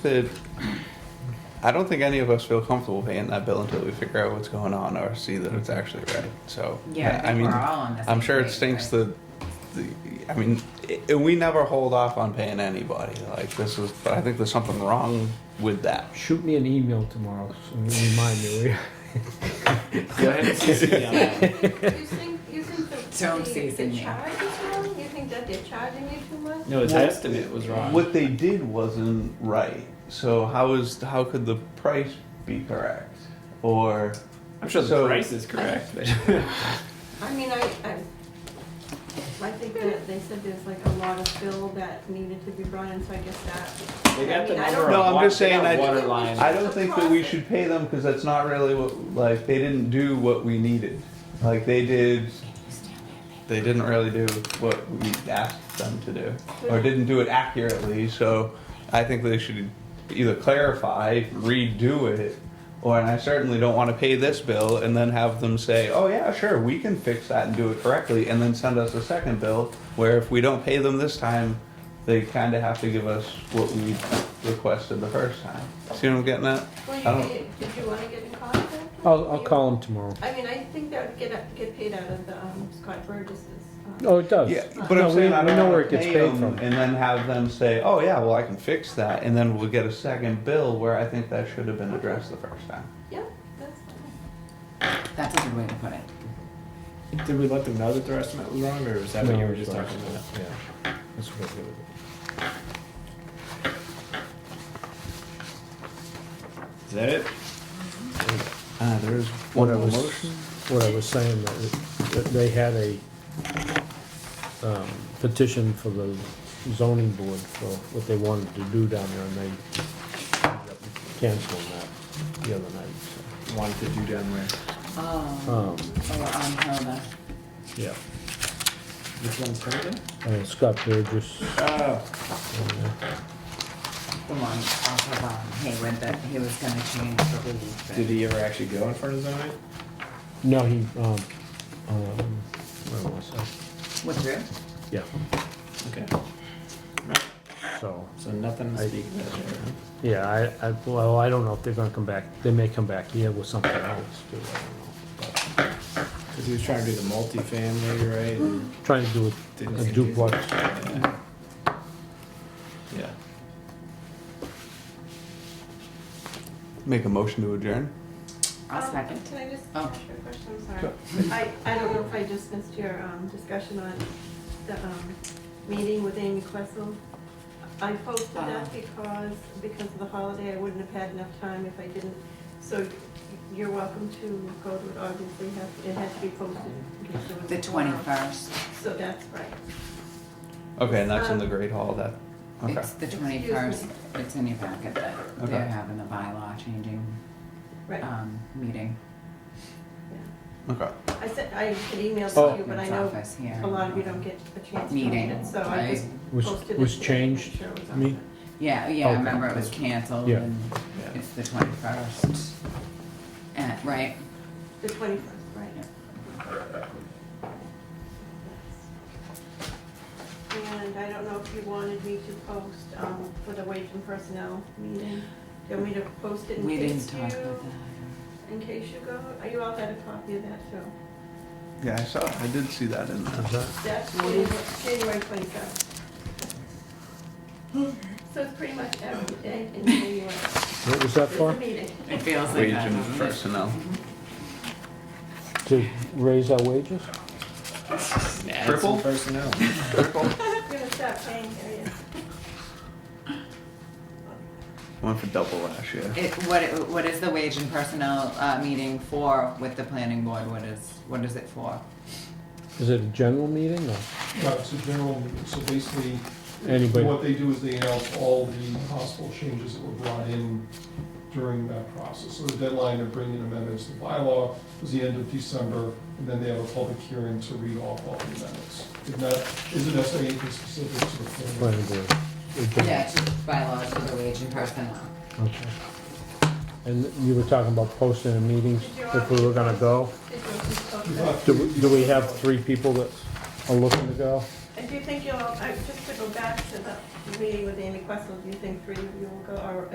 that I don't think any of us feel comfortable paying that bill until we figure out what's going on or see that it's actually right. So Yeah, I think mean, we're all on the I'm same sure it page, stinks right? that. The, I mean, i we never hold off on paying anybody. Like this is, but I think there's something wrong with that. Shoot me an email tomorrow and remind me. Go ahead and CC me on that. You think, you think that Don't the, season the me. charge is wrong? You think that they're charging you too much? No, its What- estimate was wrong. What they did wasn't right. So how is how could the price be correct? Or I'm sure the So- price is correct, but I mean, I, I, I think that they said there's like a lot of bill that needed to be brought in, so I guess that. they got the I mean, I number. of don't- No, I'm wa- just they got saying I- water line. I don't think that we should pay them because that's not really what like they didn't do what we needed. Like they did, they didn't really do what we asked them to do, or didn't do it accurately. So I think they should either clarify, redo it, or and I certainly don't want to pay this bill and then have them say, "Oh yeah, sure, we can fix that and do it correctly," and then send us a second bill where if we don't pay them this time. They kind of have to give us what we requested the first time. See what I'm getting at? Well, I don't- you, did did you wanna get in contact? with I'll, I'll you? call him tomorrow. I mean, I think that would get, out- get paid out of the, um, Scott Burgess's. um, Oh, it does. Yeah, but No, I'm saying we, I we don't know wanna where it gets pay paid 'em from. and then have them say, "Oh yeah, well I can fix that," and then we'll get a second bill where I think that should have been addressed the first time. Yeah, that's fine. That's a good way to put it. Did we let them know that their estimate was wrong, or was that what No, you were it's just not. talking about? Yeah, that's what I did with it. Is that it? Uh, there is What one I more was, motion. what I was saying, that, it- that they had a um, petition for the zoning board for what they wanted to do down there, and they ended up canceling that the other night. Wanted to do down where? so. Oh, Um, so we're on Hilda. yeah, Which one's Herndon? Uh, Scott Burgess, Oh, The one off of um, Hayward that he was going to change the lead. but- did he ever actually go in front of zoning? no, he, um, um, where was I? Withdrew? Yeah, Okay. so. So nothing to I- speak about there. huh? Yeah, I, I, well, I don't know if they're gonna come back, they may come back here with something else too, I don't know. Because he was trying to do the multifamily, right? and- But Trying to do Didn't a confuse duplex, Yeah. uh, yeah. Make a motion to adjourn. I'll Um, second. Can I just Oh. ask you a question? I'm sorry. I, I don't know if I just missed your um, discussion on the um, meeting with Amy Questle. I posted Uh-huh. that because, because of the holiday, I wouldn't have had enough time if I didn't. So you're welcome to go to it, obviously, have- it has to be posted. in case there was The a quorum. 21st. So that's right. Okay, and that's in the Um, Great Hall. That. Okay. It's the Excuse me. 21st. It's in your packet that they're Okay. having the bylaw changing Right, um, meeting. yeah. Okay. I said, I had emailed Oh. to you, but I It's know office here. a lot of you don't get a chance to read Meeting, it, so I just right? was, posted it. was today to make changed, sure it was on me, there. Yeah, yeah, I Okay. remember it was canceled Yeah. and Yeah. it's the 21st. Uh, Right? The twenty-first, right. And I don't know if you wanted me to post, um, for the wage and personnel meeting. Do you want me to post it in We didn't case talk you, about that. in case you go? Are you all had a copy of that too? Yeah, I saw. I did see that in is there. that, That's What January is January twenty-seventh. So it's pretty much every day in January. what was that There's a for? meeting. It feels like Wage that, and doesn't it? personnel. To raise our wages? Add some Triple? personnel. I'm gonna stop paying, there you One for double last year. It, what, what is the wage and personnel, uh, meeting for with the planning board? What is, what is it for? Is it a general meeting or No, it's a general, so basically, anybody? what they do is they announce all the possible changes that were brought in during that process. So the deadline to bring in amendments to bylaw was the end of December, and then they have a public hearing to read off all the amendments. If not, isn't necessarily anything specific to the plan. Planning board. a general- Yeah, it's just bylaws for the wage and personnel. Okay. And you were talking about posting in meetings, if we were gonna go, Did you want me to post We that? thought- do, we- do we have three people that are looking to go? And do you think you'll, I- just to go back to the meeting with Amy Questle, do you think three of you will go, or